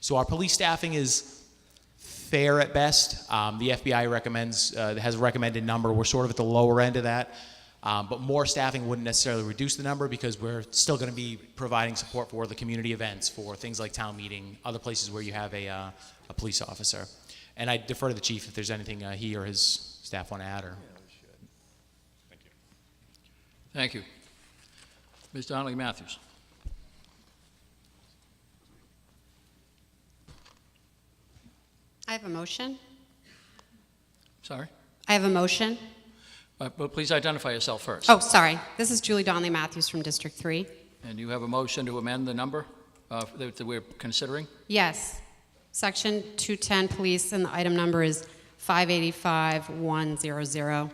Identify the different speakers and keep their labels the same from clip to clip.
Speaker 1: So our police staffing is fair at best. Um, the FBI recommends uh, has a recommended number. We're sort of at the lower end of that, um, but more staffing wouldn't necessarily reduce the number because we're still going to be providing support for the community events, for things like town meeting, other places where you have a, uh, a police officer. And I defer to the chief if there's anything uh, he or his staff want to add or.
Speaker 2: Thank you. Ms. Donnelly Matthews.
Speaker 3: I have a motion.
Speaker 2: Sorry?
Speaker 3: I have a motion.
Speaker 2: But but please identify yourself first.
Speaker 3: Oh, sorry. This is Julie Donnelly Matthews from District 3.
Speaker 2: And you have a motion to amend the number uh, that that we're considering?
Speaker 3: Yes. Section 210 Police, and the item number is 585100.
Speaker 2: Wait a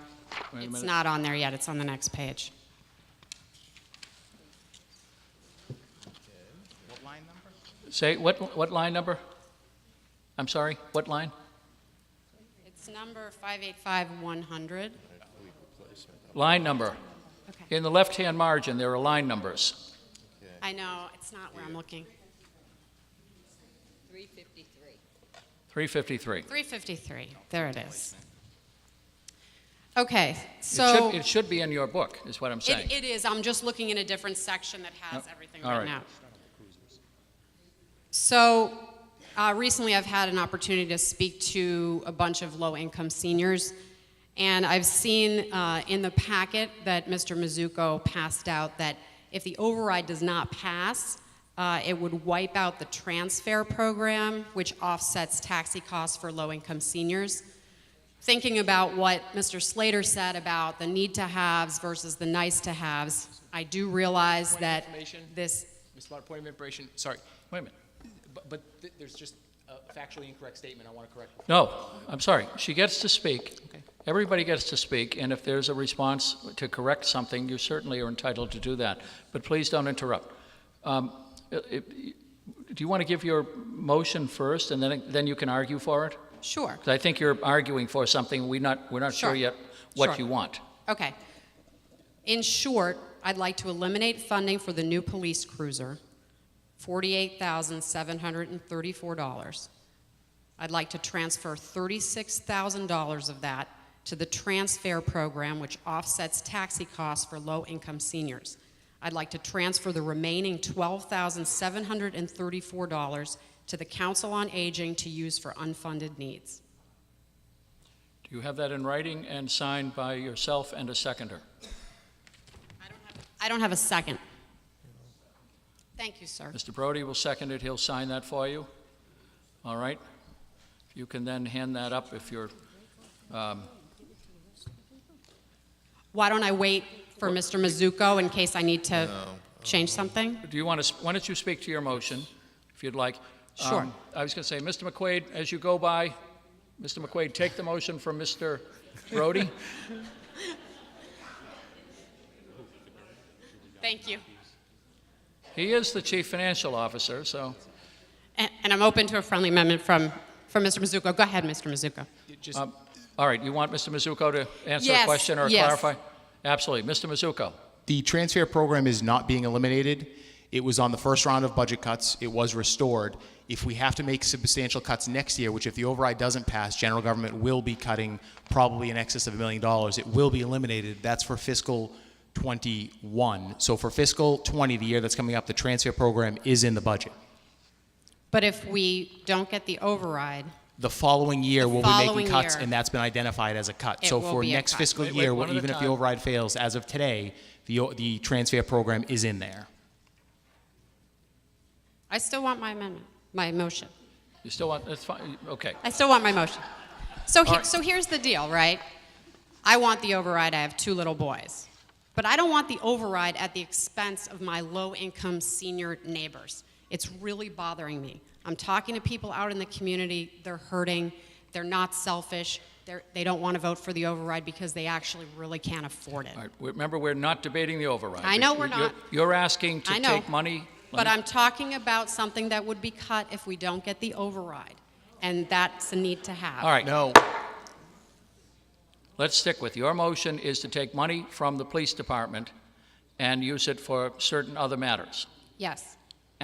Speaker 3: It's
Speaker 2: minute.
Speaker 3: not on there yet. It's on the next page.
Speaker 2: Say, what, what line number? I'm sorry, what line?
Speaker 3: It's number 585100.
Speaker 2: Line number.
Speaker 3: Okay.
Speaker 2: In the left-hand margin, there are line numbers.
Speaker 3: I know. It's not where I'm looking.
Speaker 2: 353.
Speaker 3: 353. There it is. Okay,
Speaker 2: It
Speaker 3: so.
Speaker 2: should- It should be in your book, is what I'm saying.
Speaker 3: It, it is, I'm just looking in a different section that has
Speaker 2: Oh,
Speaker 3: everything
Speaker 2: all
Speaker 3: right
Speaker 2: right.
Speaker 3: now. So, uh, recently I've had an opportunity to speak to a bunch of low-income seniors, and I've seen uh, in the packet that Mr. Mizuko passed out that if the override does not pass, uh, it would wipe out the transfer program, which offsets taxi costs for low-income seniors thinking about what Mr. Slater said about the need to haves versus the nice to haves, I do realize
Speaker 4: Point of
Speaker 3: that
Speaker 4: information?
Speaker 3: this,
Speaker 4: Mr. Lot, point of information, sorry,
Speaker 2: Wait a minute.
Speaker 4: but, but th- there's just a factually incorrect statement I want to correct.
Speaker 2: No, I'm sorry. She gets to speak.
Speaker 4: Okay.
Speaker 2: Everybody gets to speak, and if there's a response to correct something, you certainly are entitled to do that. But please don't interrupt. Um, i- i- Do you want to give your motion first, and then, then you can argue for it?
Speaker 3: sure,
Speaker 2: 'Cause I think you're arguing for something, we're not, we're not sure
Speaker 3: Sure.
Speaker 2: yet what
Speaker 3: Sure.
Speaker 2: you want.
Speaker 3: okay. In short, I'd like to eliminate funding for the new police cruiser, forty-eight thousand seven hundred and thirty-four dollars. I'd like to transfer thirty-six thousand dollars of that to the transfer program, which offsets taxi costs for low-income seniors. I'd like to transfer the remaining twelve thousand seven hundred and thirty-four dollars to the Council on Aging to use for unfunded needs.
Speaker 2: Do you have that in writing and signed by yourself and a seconder?
Speaker 3: I don't have a second. Thank you, sir.
Speaker 2: Mr. Brody will second it, he'll sign that for you. All right? You can then hand that up if you're
Speaker 3: Why don't I wait for Mr. Mizuko in case I need to change something?
Speaker 2: Do you want to, why don't you speak to your motion, if you'd like?
Speaker 3: Sure.
Speaker 2: Um, I was going to say, Mr. McQuaid, as you go by, Mr. McQuaid, take the motion from Mr. Brody.
Speaker 3: Thank you.
Speaker 2: He is the chief financial officer, so,
Speaker 3: And and I'm open to a friendly amendment from, from Mr. Mizuko. Go ahead, Mr. Mizuko.
Speaker 4: It Just,
Speaker 2: um, all right, you want Mr. Mizuko to answer a
Speaker 3: Yes,
Speaker 2: question or
Speaker 3: yes.
Speaker 2: clarify? Absolutely. Mr. Mizuko,
Speaker 1: The transfer program is not being eliminated. It was on the first round of budget cuts. It was restored. If we have to make substantial cuts next year, which if the override doesn't pass, general government will be cutting probably in excess of a million dollars. It will be eliminated. That's for fiscal 21. So for fiscal 20, the year that's coming up, the transfer program is in the budget.
Speaker 3: But if we don't get the override,
Speaker 1: The following year, we'll be
Speaker 3: following
Speaker 1: making cuts,
Speaker 3: year.
Speaker 1: and that's been identified as a cut.
Speaker 3: It
Speaker 1: so
Speaker 3: will
Speaker 1: for
Speaker 3: be a
Speaker 1: next
Speaker 3: cut.
Speaker 1: fiscal
Speaker 2: Wait, wait,
Speaker 1: year,
Speaker 2: one at a
Speaker 1: even if the
Speaker 2: time.
Speaker 1: override fails, as of today, the, o- the transfer program is in there.
Speaker 3: I still want my amendment, my motion.
Speaker 2: you still want, that's fine, okay.
Speaker 3: I still want my motion. So, he,
Speaker 2: All right.
Speaker 3: so here's the deal, right? I want the override. I have two little boys. But I don't want the override at the expense of my low income senior neighbors. It's really bothering me. I'm talking to people out in the community. They're hurting. They're not selfish. They're, they don't want to vote for the override because they actually really can't afford it.
Speaker 2: All right, we- remember, we're not debating the override.
Speaker 3: I know
Speaker 2: You-
Speaker 3: we're
Speaker 2: you're-
Speaker 3: not.
Speaker 2: You're asking to
Speaker 3: I know.
Speaker 2: take money.
Speaker 3: But I'm talking about something that would be cut if we don't get the override. And that's a need to have.
Speaker 2: All right.
Speaker 1: No.
Speaker 2: Let's stick with, your motion is to take money from the police department and use it for certain other matters,
Speaker 3: Yes.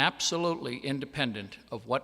Speaker 2: absolutely independent of what